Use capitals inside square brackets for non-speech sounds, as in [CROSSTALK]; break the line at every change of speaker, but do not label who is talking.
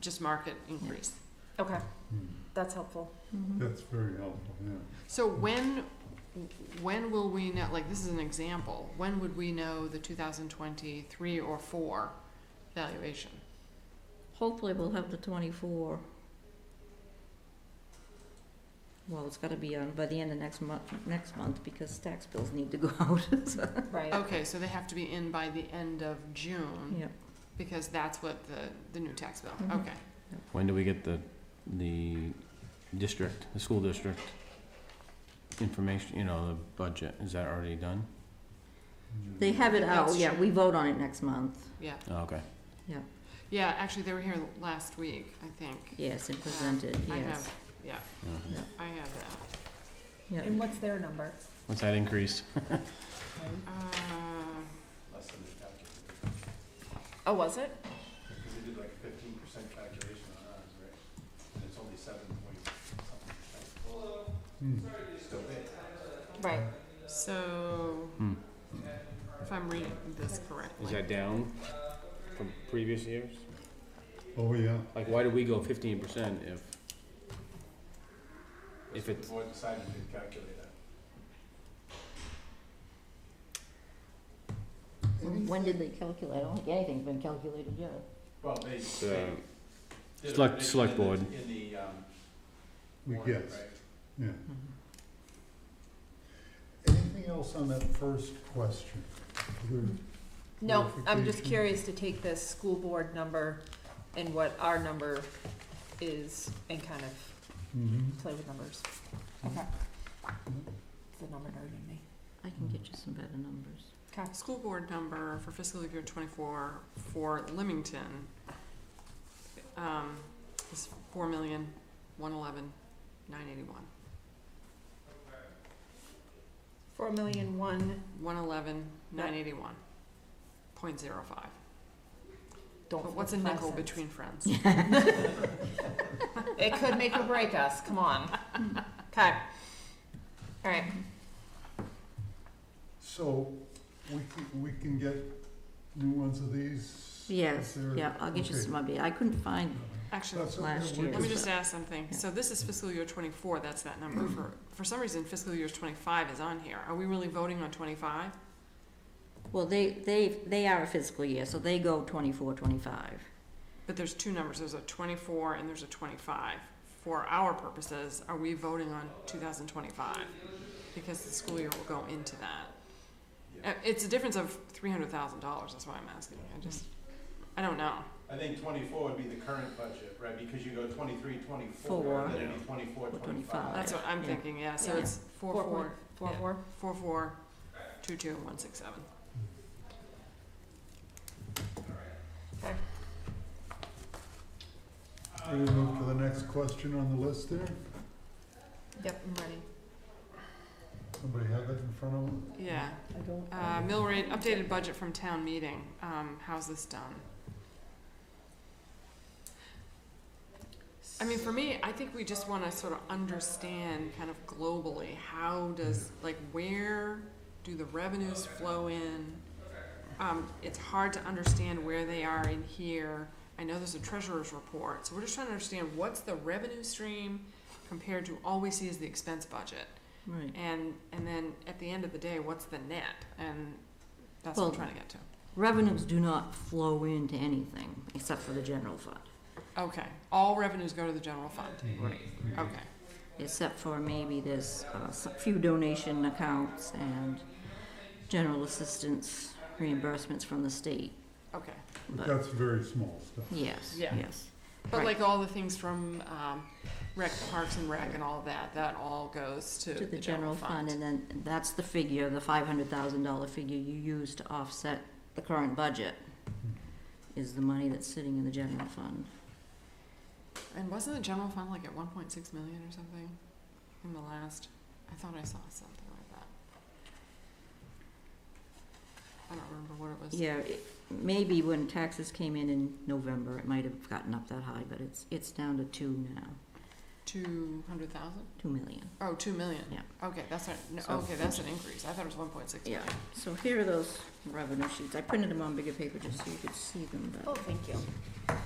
just market increase.
Okay, that's [LAUGHS] helpful.
Mm-hmm.
That's very helpful, yeah.
So when, when will we know, like, this is an example, when would we know the two thousand twenty-three or four valuation?
Hopefully, we'll have the twenty-four. Well, it's gotta be on by the end of next month, next month, because tax bills need to go [LAUGHS] out, so,
Right.
Okay, so they have to be in by the end of June,
yeah.
because that's what the, the new tax bill,
Mhm.
okay.
When do we get the, the district, the school district information, you know, the budget, is that already done?
They have it out,
That's
yeah,
true.
we vote on it next month,
Oh, Okay,
Yeah, actually, they were here last week, I think.
yes, and present it,
Ah, I
yes.
have, yeah,
Yeah.
I have that.
Yeah.
And what's their number?
what's that increase?
Uh,
less than the calculator.
Oh, was it?
Because they did like a fifteen percent calculation on ours, right? And it's only seven point something percent. Still big.
Right.
So,
Hmm.
if I'm reading this correctly,
down from previous years?
Oh, yeah.
Like, why did we go fifteen percent if? If
The
it's,
board decided to calculate that.
When when did they calculate, I don't think anything's been calculated yet.
Well, they, they
uh,
did a
Select-
prediction
select
in the-
board.
In the, um,
We
warrant,
guess,
right?
yeah.
Mm-hmm.
Anything else on that first question? Other
No, I'm just
clarification?
curious to take this school board number and what our number is and kind of
Mhm.
play with numbers. Okay. It's the number nerd in me.
I can get you some better numbers.
Okay.
school board number for fiscal year twenty-four for Leamington, um, is four million, one eleven, nine eighty-one.
Four million one,
One eleven, nine eighty-one, point zero five.
don't.
But what's a
flip five
nickel
cents.
between
[LAUGHS]
friends?
It could make or break us, come [LAUGHS] on. Okay. All right,
So, we can, we can get new ones of these?
Yes,
Is
[LAUGHS]
there-
yeah, I'll get you
okay.
some of it, I couldn't find,
Actually,
That's okay,
Last
we'll
year.
let me
get-
just ask something.
Yeah.
So this is fiscal year twenty-four, that's that number. For, for some reason, fiscal year twenty-five is on here. Are we really voting on twenty-five?
well, they, they, they are a fiscal year, so they go twenty-four, twenty-five.
But there's two numbers, there's a twenty-four and there's a twenty-five. For our purposes, are we voting on two thousand twenty-five? Because the school year will go into that. Uh, It's a difference of three hundred thousand dollars, that's why I'm asking. I just, I don't know.
I think twenty-four would be the current budget, right? Because you go twenty-three,
Four.
twenty-four, then it'd be twenty-four,
Or
twenty-five.
twenty-five.
That's what I'm
Yeah.
thinking, yeah, so
Yeah.
it's four,
Four
four,
four,
Yeah.
four.
four, four, two, two, one, six, seven.
Ready to move to the next question on the list there?
Yep, I'm ready.
Somebody have that in front of them?
Yeah,
I don't.
uh, mill rate, updated budget from town meeting, um, how's this done? I mean, for me, I think we just wanna sort of understand kind of globally, how does, like, where do the revenues flow in? Um, it's hard to understand where they are in here. I know there's a treasurer's report, so we're just trying to understand what's the revenue stream compared to all we see is the expense budget.
Right,
And, and then at the end of the day, what's the net? And that's what I'm
Well-
trying to get to.
revenues do not flow into anything except for the general fund.
Okay, all revenues go to the general fund.
Right.
Okay,
except for maybe there's uh, s- a few donation accounts and general assistance reimbursements from the state.
okay.
But
But-
that's very small stuff.
Yes,
Yeah.
yes.
But
Right.
like all the things from, um, rec, parks and rec and all of that, that all goes to
To the general fund, and then that's the figure, the five hundred thousand dollar figure you use to offset the current budget is the money that's sitting in the general fund.
And wasn't the general fund like at one point six million or something in the last, I thought I saw something like that. I don't remember what it was.
Yeah, it- maybe when taxes came in in November, it might have gotten up that high, but it's, it's down to two now,
Two hundred thousand?
two million.
Oh, two million?
Yeah.
Okay, that's not, no,
So-
okay, that's an increase. I thought it was one point six
Yeah,
million.
so here are those revenue sheets. I printed them on bigger paper just so you could see them, but.
Oh, thank you.